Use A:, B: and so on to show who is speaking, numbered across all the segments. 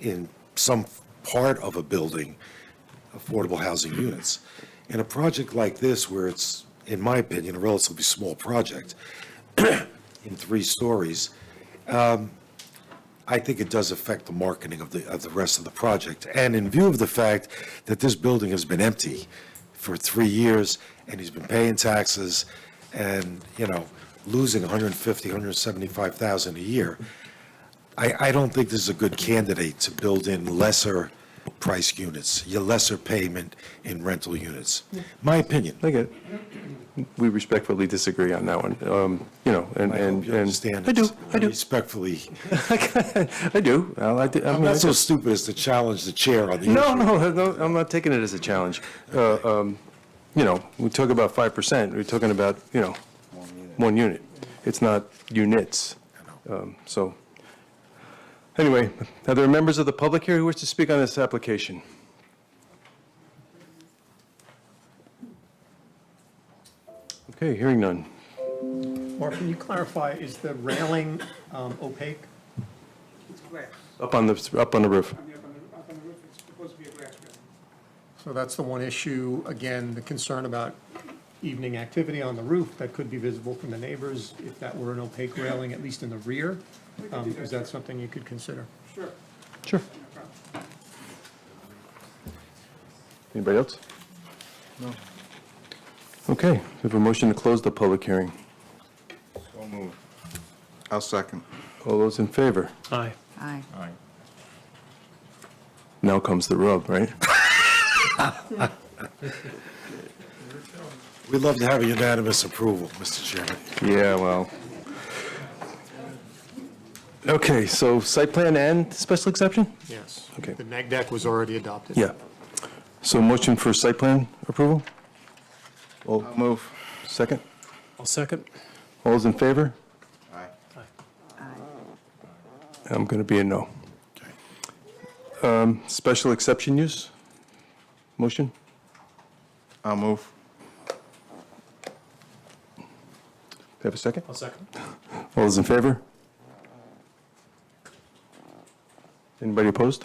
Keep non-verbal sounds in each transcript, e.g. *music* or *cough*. A: in some part of a building, affordable housing units. In a project like this, where it's, in my opinion, a relatively small project, in three stories, um, I think it does affect the marketing of the, of the rest of the project. And in view of the fact that this building has been empty for three years, and he's been paying taxes, and, you know, losing 150, 175,000 a year, I, I don't think this is a good candidate to build in lesser price units, your lesser payment in rental units. My opinion.
B: I get it. We respectfully disagree on that one, Um, you know, and,
A: I hope
B: and.
A: you
B: and-
A: understand.
B: I do,
A: it's
B: I do,
A: Respectfully,
B: *laughs* I do. Well, I do- I
A: I'm
B: mean, I
A: not so
B: do.
A: stupid as to challenge the chair on the issue.
B: No, no, no, I'm not taking it as a challenge. Uh, um, You know, we talk about 5%, we're talking about, you know, one unit. It's not units. Um, So, anyway, are there members of the public here who wish to speak on this application? Okay, hearing none.
C: Mark, can you clarify, is the railing um, opaque?
D: It's glass.
B: Up on the, up on the roof.
D: I mean, up on the, up on the roof, it's supposed to be a glass railing.
C: So that's the one issue, again, the concern about evening activity on the roof that could be visible from the neighbors if that were an opaque railing, at least in the rear. Um, Is that something you could consider?
D: Sure,
B: Sure.
D: no problem.
B: Anybody else? No. Okay, we have a motion to close the public hearing.
E: So moved. I'll second.
B: All those in favor?
C: Aye.
F: Aye.
B: Now comes the rub, right?
A: We'd love to have a unanimous approval, Mr. Chairman.
B: Yeah, well. Okay, so site plan and special exception?
C: Yes.
B: Okay.
C: The neg deck was already adopted.
B: Yeah. So motion for site plan approval?
E: I'll move.
B: Second?
C: I'll second.
B: All those in favor?
E: Aye.
B: I'm going to be a no. Um, Special exception use? Motion?
E: I'll move.
B: Have a second?
C: I'll second.
B: All those in favor? Anybody opposed?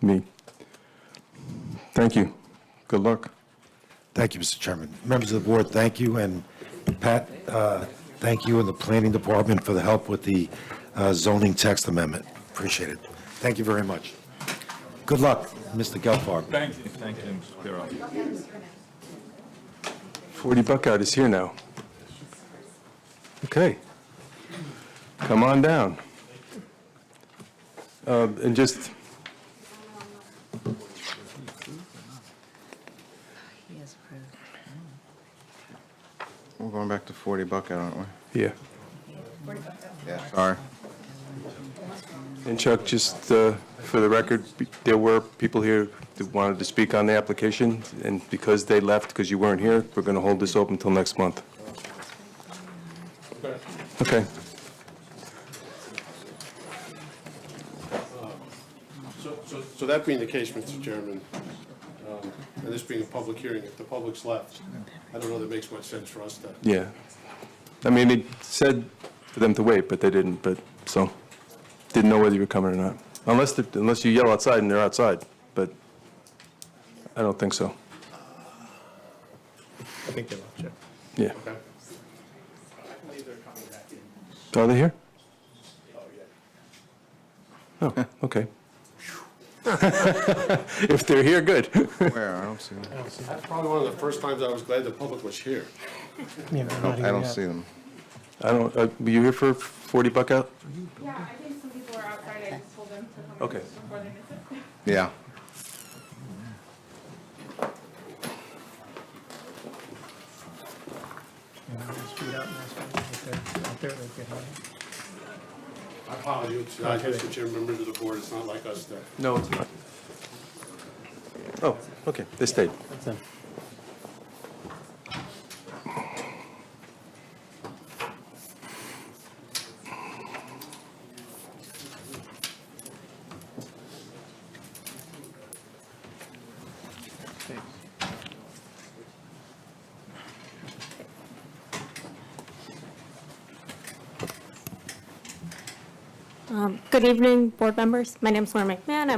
B: Me. Thank you. Good luck.
A: Thank you, Mr. Chairman. Members of the board, thank you, and Pat, uh, thank you and the planning department for the help with the uh, zoning text amendment. Appreciate it. Thank you very much. Good luck, Mr. Gelfarb.
G: Thank you, thank you, Mr. Pirro.
B: 40 Buckout is here now. Okay. Come on down. Uh, And just,
F: He is approved.
E: We're going back to 40 bucket, aren't we?
B: yeah.
E: Yeah. Sorry.
B: And Chuck, just uh, for the record, there were people here that wanted to speak on the application, and because they left, because you weren't here, we're going to hold this open until next month. Okay.
H: So- So so that being the case, Mr. Chairman, um, and this being a public hearing, if the public's left, I don't know that makes much sense for us to,
B: Yeah. I mean, they said for them to wait, but they didn't, but, so, didn't know whether you were coming or not. Unless, the- unless you yell outside and they're outside, but I don't think so.
C: I think they left, Jeff.
B: Yeah.
H: okay?
B: Are they here? Oh, okay. *laughs* If they're here, good.
E: Where? I don't see them.
H: That's probably one of the first times I was glad the public was here.
E: I don't see them.
B: I don't, uh, were you here for 40 buck out?
I: Yeah, I think some people are outside, I just told them to come in
B: Okay.
I: before they miss it.
E: Yeah.
H: I apologize, uh, Mr. Chairman, members of the board, it's not like us to
B: No, it's not. Oh, okay, they stayed.
I: Good evening, board members. My name's Lauren McMahon.